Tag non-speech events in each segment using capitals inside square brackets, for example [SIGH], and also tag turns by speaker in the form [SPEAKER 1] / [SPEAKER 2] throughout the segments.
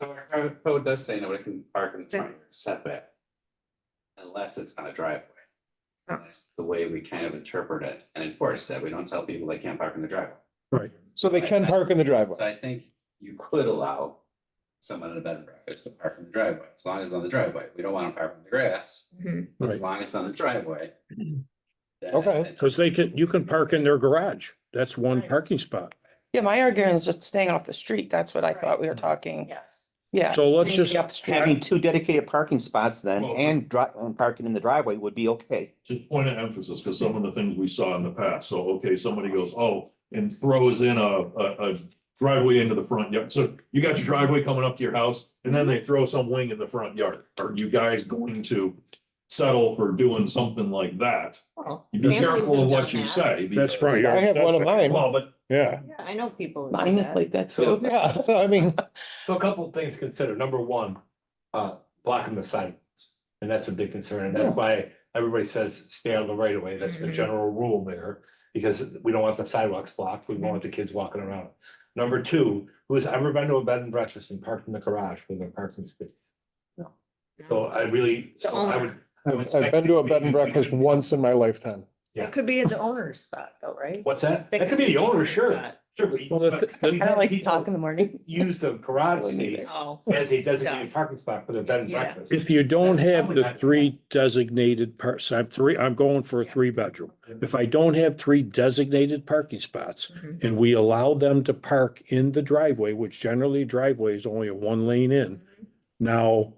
[SPEAKER 1] our code does say nobody can park in the
[SPEAKER 2] Okay.
[SPEAKER 1] front yard setback. Unless it's on a driveway.
[SPEAKER 2] Oh.
[SPEAKER 1] That's the way we kind of interpret it and enforce that. We don't tell people they can't park in the driveway.
[SPEAKER 3] So they can park in the
[SPEAKER 1] So
[SPEAKER 3] driveway.
[SPEAKER 1] I think you could allow someone in a bed and breakfast to park in the driveway, as long as it's on the driveway. We don't want to park in the grass,
[SPEAKER 2] Mhm.
[SPEAKER 1] but as
[SPEAKER 4] Right.
[SPEAKER 1] long as it's on the driveway. then-
[SPEAKER 3] Okay.
[SPEAKER 4] Cause they can, you can park in their garage. That's one
[SPEAKER 2] Right.
[SPEAKER 4] parking spot.
[SPEAKER 5] Yeah, my argument is just staying off the street. That's what I thought we were talking.
[SPEAKER 2] Yes.
[SPEAKER 5] Mm-hmm. Yeah.
[SPEAKER 4] So let's
[SPEAKER 5] Maybe
[SPEAKER 4] just,
[SPEAKER 5] up the street.
[SPEAKER 6] Having two dedicated parking spots then
[SPEAKER 7] Well-
[SPEAKER 6] and dri- and parking in the driveway would be okay.
[SPEAKER 7] Just point of emphasis, because some of the things we saw in the past, so, okay, somebody goes, oh, and throws in a, a, a driveway into the front yard, so you got your driveway coming up to your house, and then they throw some wing in the front yard, are you guys going to settle for doing something like that?
[SPEAKER 2] Well,
[SPEAKER 7] Be
[SPEAKER 2] families
[SPEAKER 7] careful
[SPEAKER 2] have
[SPEAKER 7] of what
[SPEAKER 2] done
[SPEAKER 7] you
[SPEAKER 2] that.
[SPEAKER 7] say.
[SPEAKER 4] that's
[SPEAKER 7] because-
[SPEAKER 4] front
[SPEAKER 3] I
[SPEAKER 4] yard.
[SPEAKER 3] have one of mine.
[SPEAKER 7] Well, but
[SPEAKER 4] Yeah.
[SPEAKER 2] Yeah, I know people. who do
[SPEAKER 5] Mine is
[SPEAKER 2] that.
[SPEAKER 5] like that too.
[SPEAKER 3] Yeah, so I mean,
[SPEAKER 8] So a couple of things considered. Number one, uh, blocking the sidewalks. And that's a big concern. And that's why everybody says stay on the right of way. That's the
[SPEAKER 5] Mm-hmm.
[SPEAKER 2] Mhm.
[SPEAKER 8] general rule there. Because we don't want the sidewalks blocked. We don't want the kids walking around. Number two, who has ever been to a bed and breakfast and parked in the garage with their parking space? No. So uh, I really, so I would. I would
[SPEAKER 3] I've I've been to a bed and breakfast once in my lifetime.
[SPEAKER 8] Yeah.
[SPEAKER 2] It could be the owner's spot though, right?
[SPEAKER 8] [LAUGHS] What's that? That could be the owner, sure. Sure. but-
[SPEAKER 4] Well, the-
[SPEAKER 8] but have you
[SPEAKER 5] I don't
[SPEAKER 8] had
[SPEAKER 5] like to
[SPEAKER 8] people
[SPEAKER 5] talk in the morning.
[SPEAKER 8] Use the garage space
[SPEAKER 2] Oh.
[SPEAKER 8] as a designated parking spot for their bed and
[SPEAKER 2] Yeah.
[SPEAKER 8] breakfast.
[SPEAKER 4] If you don't have the three designated parts, I'm three, I'm going for a three bedroom. If I don't have three designated parking spots
[SPEAKER 2] Mhm.
[SPEAKER 4] and we allow them to park in the driveway, which generally driveway is only a one lane in.
[SPEAKER 2] Mm-hmm.
[SPEAKER 4] Now,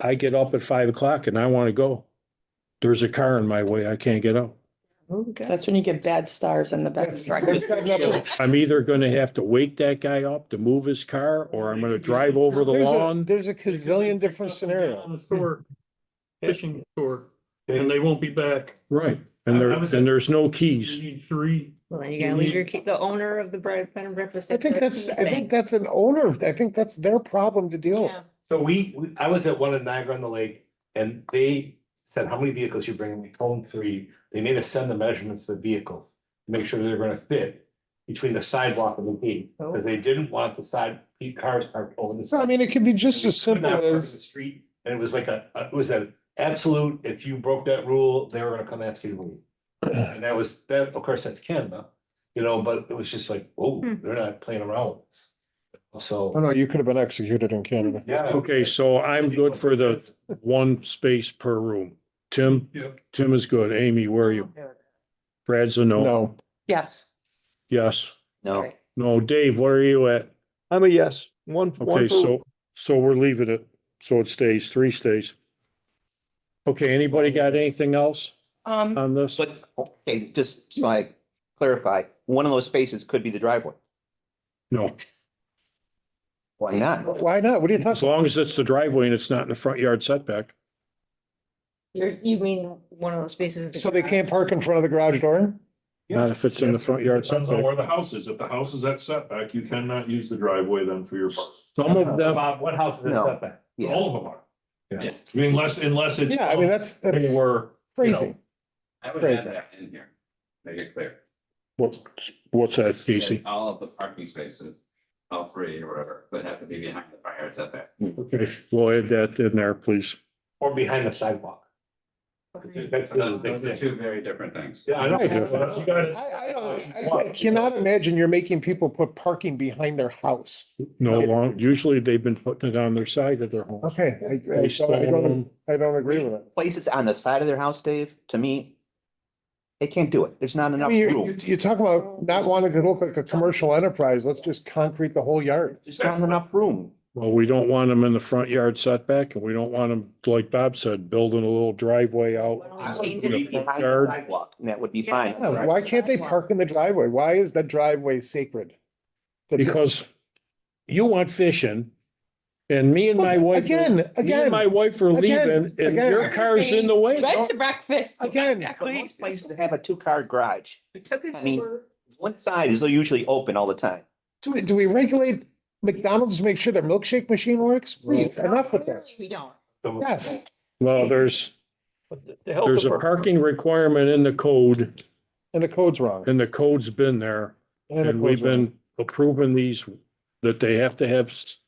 [SPEAKER 4] I get up at five o'clock and I want to go. There's a car in my way. I can't get out.
[SPEAKER 2] Okay.
[SPEAKER 5] That's when you get bad stars in the bed.
[SPEAKER 3] That's not nothing.
[SPEAKER 4] I'm either gonna have to wake that guy up to move his car, or I'm gonna drive over the
[SPEAKER 3] There's a-
[SPEAKER 4] lawn.
[SPEAKER 3] There's a gazillion different
[SPEAKER 9] On
[SPEAKER 3] scenarios.
[SPEAKER 9] the store, fishing store,
[SPEAKER 8] Yeah.
[SPEAKER 9] and they won't be back.
[SPEAKER 4] Right, and there, and there's no keys.
[SPEAKER 9] You need three.
[SPEAKER 2] Well, then you gotta leave your key, the owner of the bread, bed and breakfast.
[SPEAKER 3] I think
[SPEAKER 2] at
[SPEAKER 3] that's, I
[SPEAKER 2] the
[SPEAKER 3] think that's an owner, I think that's their problem to deal with.
[SPEAKER 2] Yeah.
[SPEAKER 8] So we, we- I was at one in Niagara on the lake and they said, how many vehicles you bringing? We told them three. They made us send the measurements of the vehicles, to make sure they're gonna fit between the sidewalk and the gate,
[SPEAKER 2] Oh,
[SPEAKER 8] because they didn't want the side, the cars parked over the
[SPEAKER 3] So I
[SPEAKER 8] side.
[SPEAKER 3] mean, it could be just
[SPEAKER 8] They
[SPEAKER 3] as
[SPEAKER 8] could
[SPEAKER 3] simple
[SPEAKER 8] not park in
[SPEAKER 3] as,
[SPEAKER 8] the Street, and it was like a, a- it was an absolute, if you broke that rule, they were gonna come ask you to leave. And that was, that, of course, that's Canada, you know, but it was just like, oh,
[SPEAKER 2] Hmm.
[SPEAKER 8] they're not playing around with this.
[SPEAKER 3] oh
[SPEAKER 8] So,
[SPEAKER 3] no, you could have been executed in Canada.
[SPEAKER 8] yeah.
[SPEAKER 4] Okay, so I'm good for the one space per room. Tim?
[SPEAKER 9] Yep.
[SPEAKER 4] Tim is good. Amy, where are you? Brad's a no.
[SPEAKER 3] No,
[SPEAKER 5] Yes.
[SPEAKER 4] Yes.
[SPEAKER 6] No.
[SPEAKER 4] No, Dave, where are you at?
[SPEAKER 10] I'm a yes, one.
[SPEAKER 4] Okay,
[SPEAKER 10] one for-
[SPEAKER 4] so, so we're leaving it. So it stays, three stays. Okay, anybody got anything else
[SPEAKER 5] Um,
[SPEAKER 4] on this?
[SPEAKER 6] But, okay, just so I clarify, one of those spaces could be the driveway.
[SPEAKER 4] No,
[SPEAKER 6] Why not?
[SPEAKER 3] why not? What are you
[SPEAKER 4] as
[SPEAKER 3] talking?
[SPEAKER 4] long as it's the driveway and it's not in the front yard setback.
[SPEAKER 2] You're, you mean one of those spaces?
[SPEAKER 3] So they can't park in front of the garage door?
[SPEAKER 4] Not if it's in the front yard
[SPEAKER 7] Depends on
[SPEAKER 4] setback.
[SPEAKER 7] where the house is. If the house is at setback, you cannot use the driveway then for your park.
[SPEAKER 4] Some of them,
[SPEAKER 8] Bob, what house is it
[SPEAKER 6] No.
[SPEAKER 8] set back?
[SPEAKER 6] Yeah.
[SPEAKER 7] All of them are. Yeah, I mean, unless, unless it's.
[SPEAKER 3] Yeah, I mean, that's, that's
[SPEAKER 7] They were. you know,
[SPEAKER 3] crazy.
[SPEAKER 1] I would add
[SPEAKER 3] Crazy.
[SPEAKER 1] that in here. Make it clear.
[SPEAKER 4] what's, what's that,
[SPEAKER 1] Say
[SPEAKER 4] Casey?
[SPEAKER 1] All of the parking spaces, all three or whatever, would have to be behind the fire setback.
[SPEAKER 4] Okay, we'll add that in there, please.
[SPEAKER 8] Or behind the sidewalk. That's another big
[SPEAKER 1] Those are
[SPEAKER 8] thing.
[SPEAKER 1] two very different things.
[SPEAKER 8] Yeah, I
[SPEAKER 3] Right.
[SPEAKER 8] know. You
[SPEAKER 3] I,
[SPEAKER 8] gotta-
[SPEAKER 3] I don't, I- I cannot imagine you're making people put parking behind their house.
[SPEAKER 4] No long, usually they've been putting it on their side of their home.
[SPEAKER 3] Okay, I,
[SPEAKER 4] They
[SPEAKER 3] I don't, I don't,
[SPEAKER 4] stone-
[SPEAKER 3] I don't agree with it.
[SPEAKER 6] Places on the side of their house, Dave, to me, they can't do it. There's not
[SPEAKER 3] I
[SPEAKER 6] enough
[SPEAKER 3] mean,
[SPEAKER 6] room.
[SPEAKER 3] you, you- you talk about not wanting to look like a commercial enterprise, let's just concrete the whole yard.
[SPEAKER 6] There's not enough room.
[SPEAKER 4] Well, we don't want them in the front yard setback and we don't want them, like Bob said, building a little driveway out.
[SPEAKER 2] Why don't we
[SPEAKER 4] in
[SPEAKER 2] change it to
[SPEAKER 4] the
[SPEAKER 6] Be
[SPEAKER 2] be
[SPEAKER 4] front
[SPEAKER 6] behind the
[SPEAKER 4] yard.
[SPEAKER 6] sidewalk, and that would be
[SPEAKER 2] Yeah.
[SPEAKER 6] fine.
[SPEAKER 3] Yeah, Why can't they park in the driveway? Why is that driveway sacred? The-
[SPEAKER 4] Because you went fishing and me and my wife. are-
[SPEAKER 3] Again,
[SPEAKER 4] Me and
[SPEAKER 3] again.
[SPEAKER 4] my wife are
[SPEAKER 3] again,
[SPEAKER 4] leaving and
[SPEAKER 3] again.
[SPEAKER 4] your car's in the way.
[SPEAKER 5] Bed to breakfast.
[SPEAKER 3] Again,
[SPEAKER 6] But most places have a two-car garage. I
[SPEAKER 2] Exactly.
[SPEAKER 6] mean, one side is usually open all the time.
[SPEAKER 3] do we, do we regulate McDonald's to make sure their milkshake machine works? Please, enough with this.
[SPEAKER 2] We don't.
[SPEAKER 3] Yes.
[SPEAKER 4] Well, there's,
[SPEAKER 10] but the- the health
[SPEAKER 4] there's a
[SPEAKER 10] department-
[SPEAKER 4] parking requirement in the code
[SPEAKER 3] And the code's wrong.
[SPEAKER 4] and the code's been there.
[SPEAKER 3] the
[SPEAKER 4] And we've
[SPEAKER 3] code's wrong.
[SPEAKER 4] been approving these, that they have to have s-